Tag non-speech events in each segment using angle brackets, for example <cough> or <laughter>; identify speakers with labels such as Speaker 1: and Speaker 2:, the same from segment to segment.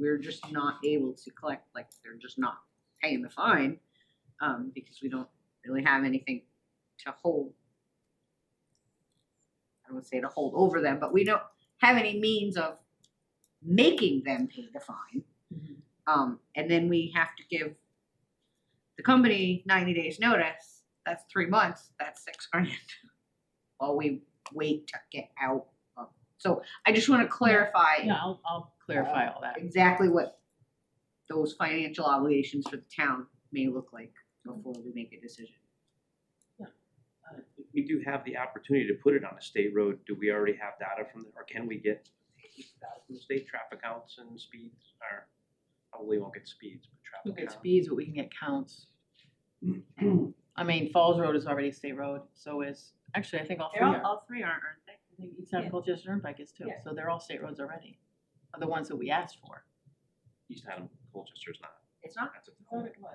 Speaker 1: we're just not able to collect, like, they're just not paying the fine, um, because we don't really have anything to hold. I would say to hold over them, but we don't have any means of making them pay the fine.
Speaker 2: Mhm.
Speaker 1: Um, and then we have to give the company ninety days notice, that's three months, that's six grand. <laughs> While we wait to get out of, so I just wanna clarify
Speaker 2: Yeah, I'll, I'll clarify all that.
Speaker 1: exactly what those financial obligations for the town may look like before we make a decision.
Speaker 3: We do have the opportunity to put it on a state road, do we already have data from, the- or can we get data from the state traffic counts and speeds, or probably won't get speeds, but
Speaker 2: We'll
Speaker 3: traffic
Speaker 2: get
Speaker 3: counts?
Speaker 2: speeds, but we can get counts. I mean, Falls Road is already a state road, so is, actually, I think all three
Speaker 4: They're all,
Speaker 2: are.
Speaker 4: all three aren't, aren't they?
Speaker 2: I think East Adam Colchester Turnpike is too,
Speaker 4: Yeah.
Speaker 2: so they're all state roads already, are the ones that we asked for.
Speaker 3: East Adam, Colchester's not,
Speaker 1: It's not,
Speaker 3: that's
Speaker 4: I thought
Speaker 3: a,
Speaker 4: it was.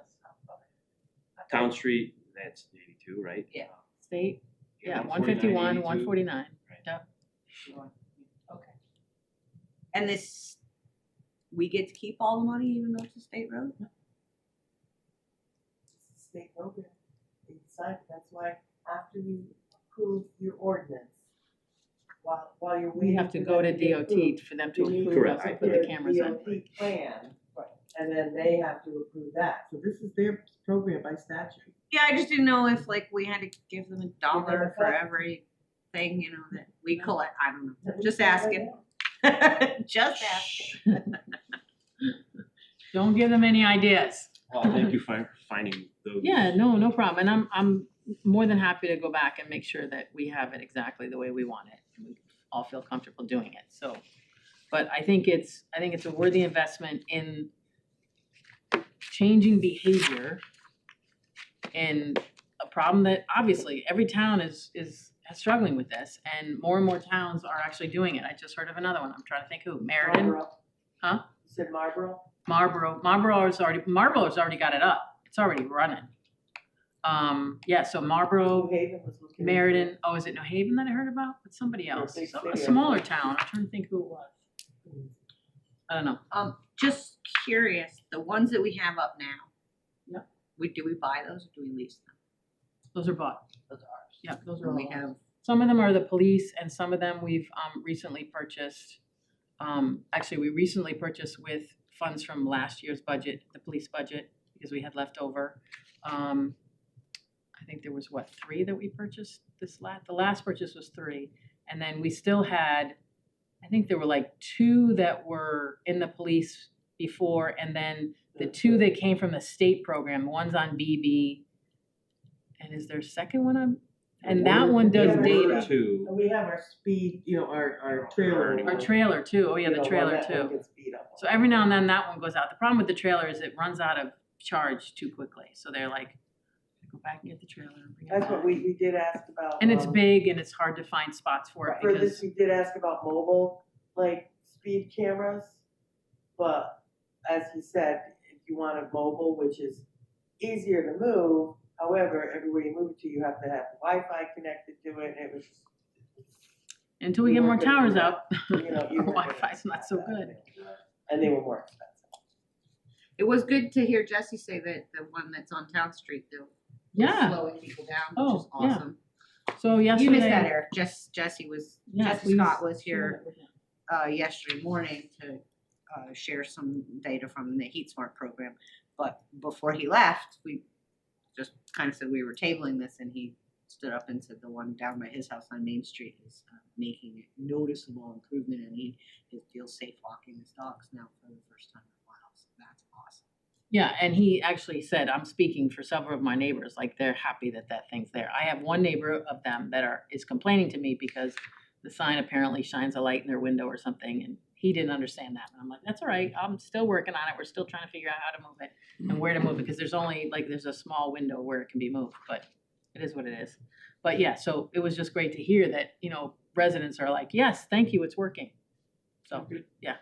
Speaker 5: Oh,
Speaker 3: Town Street, that's eighty-two, right? Um,
Speaker 4: Yeah.
Speaker 2: State, yeah,
Speaker 3: 149,
Speaker 2: one fifty-one, one
Speaker 3: 82.
Speaker 2: forty-nine,
Speaker 3: Right.
Speaker 2: yeah,
Speaker 4: Okay.
Speaker 1: and this, we get to keep all the money even though it's a state road?
Speaker 5: state program. They decide, that's why after you approve your ordinance, while, while you're
Speaker 2: we
Speaker 5: waiting.
Speaker 2: have to
Speaker 5: for
Speaker 2: go to
Speaker 5: them get
Speaker 2: DOT for them to
Speaker 5: approved, you need
Speaker 2: approve
Speaker 3: Correct.
Speaker 2: us
Speaker 3: I
Speaker 2: and put the
Speaker 5: their
Speaker 2: cameras in.
Speaker 5: DOT plan, and then they have to approve that, so this is their program by statute.
Speaker 1: Yeah, I just didn't know if like we had to give them a dollar for
Speaker 5: Yeah.
Speaker 1: every thing, you know, that we collect, I don't know,
Speaker 5: That we
Speaker 1: just
Speaker 5: can find
Speaker 1: asking, <laughs>
Speaker 5: out.
Speaker 1: just asking.
Speaker 2: Don't give them any ideas.
Speaker 3: Well, thank you for finding those.
Speaker 2: Yeah, no, no problem, and I'm, I'm more than happy to go back and make sure that we have it exactly the way we want it, and we all feel comfortable doing it, so. But I think it's, I think it's a worthy investment in changing behavior in a problem that obviously every town is, is struggling with this, and more and more towns are actually doing it, I just heard of another one, I'm trying to think who, Meriden?
Speaker 5: Marlboro.
Speaker 2: Huh?
Speaker 5: You said Marlboro?
Speaker 2: Marlboro, Marlboro's already, Marlboro's already got it up. It's already running. Um, yeah, so
Speaker 5: New
Speaker 2: Marlboro,
Speaker 5: Haven was looking. into it.
Speaker 2: Meriden, oh, is it New Haven that I heard about? But somebody
Speaker 5: Or a
Speaker 2: else,
Speaker 5: big
Speaker 2: some, a
Speaker 5: city, I
Speaker 2: smaller
Speaker 5: think.
Speaker 2: town. I'm trying to think who it was. I don't know.
Speaker 1: Um, just curious, the ones that we have up now.
Speaker 2: Yep.
Speaker 1: We, do we buy those or do we lease them?
Speaker 2: Those are bought.
Speaker 1: Those are ours.
Speaker 2: Yeah, those are
Speaker 1: And
Speaker 2: all.
Speaker 1: we have
Speaker 2: Some of them are the police and some of them we've um recently purchased. Um actually, we recently purchased with funds from last year's budget, the police budget, because we had leftover. Um I think there was what, three that we purchased this la- the last purchase was three. And then we still had, I think there were like two that were in the police before and then the two that came from the state program, one's on BB. And is there a second one on? And that one does
Speaker 5: Yeah,
Speaker 2: data.
Speaker 5: we're-
Speaker 3: Two.
Speaker 5: And we have our speed, you know, our, our
Speaker 3: Our
Speaker 5: trailer.
Speaker 2: Our trailer too, oh yeah,
Speaker 5: You know,
Speaker 2: the
Speaker 5: one
Speaker 2: trailer
Speaker 5: that one
Speaker 2: too.
Speaker 5: gets beat up on.
Speaker 2: So every now and then that one goes out. The problem with the trailer is it runs out of charge too quickly, so they're like, go back and get the trailer and bring it
Speaker 5: That's what
Speaker 2: back.
Speaker 5: we, we did ask about.
Speaker 2: And it's
Speaker 5: um,
Speaker 2: big and it's hard to find spots for it
Speaker 5: For this,
Speaker 2: because,
Speaker 5: we did ask about mobile, like speed cameras, but as he said, if you want a mobile, which is easier to move, however, everywhere you move it to, you have to have Wi-Fi connected to it, and it was,
Speaker 2: until we get more towers out, <laughs>
Speaker 5: you know, you
Speaker 2: our
Speaker 5: were gonna
Speaker 2: Wi-Fi's not so
Speaker 5: have that
Speaker 2: good.
Speaker 5: thing. And they were more expensive.
Speaker 1: It was good to hear Jesse say that the one that's on Town Street, though, was
Speaker 2: Yeah,
Speaker 1: slowing people down, which is
Speaker 2: Oh, yeah.
Speaker 1: awesome.
Speaker 2: so yesterday.
Speaker 1: You missed that, Eric. Jess, Jesse was,
Speaker 2: Yeah,
Speaker 1: Jesse
Speaker 2: we-
Speaker 1: Scott was here uh, yesterday morning to uh, share some data from the Heat Smart program. But before he left, we just kind of said we were tabling this, and he stood up and said the one down by his house on Main Street is uh, making a noticeable improvement, and he he feels safe walking his dogs now for the first time in a while. So that's awesome.
Speaker 2: Yeah, and he actually said, I'm speaking for several of my neighbors, like they're happy that that thing's there. I have one neighbor of them that are, is complaining to me because the sign apparently shines a light in their window or something, and he didn't understand that. And I'm like, that's all right, I'm still working on it, we're still trying to figure out how to move it and where to move it, because there's only, like, there's a small window where it can be moved, but it is what it is. But yeah, so it was just great to hear that, you know, residents are like, yes, thank you, it's working. So, yeah.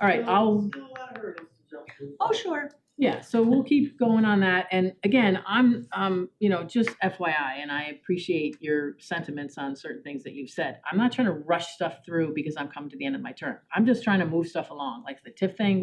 Speaker 2: All right,
Speaker 5: Still-
Speaker 2: I'll
Speaker 5: Still a lot of hurdles to jump through.
Speaker 1: sure.
Speaker 2: yeah, so we'll keep going on that, and again, I'm, um, you know, just FYI, and I appreciate your sentiments on certain things that you've said. I'm not trying to rush stuff through because I'm coming to the end of my term, I'm just trying to move stuff along, like the TIF thing,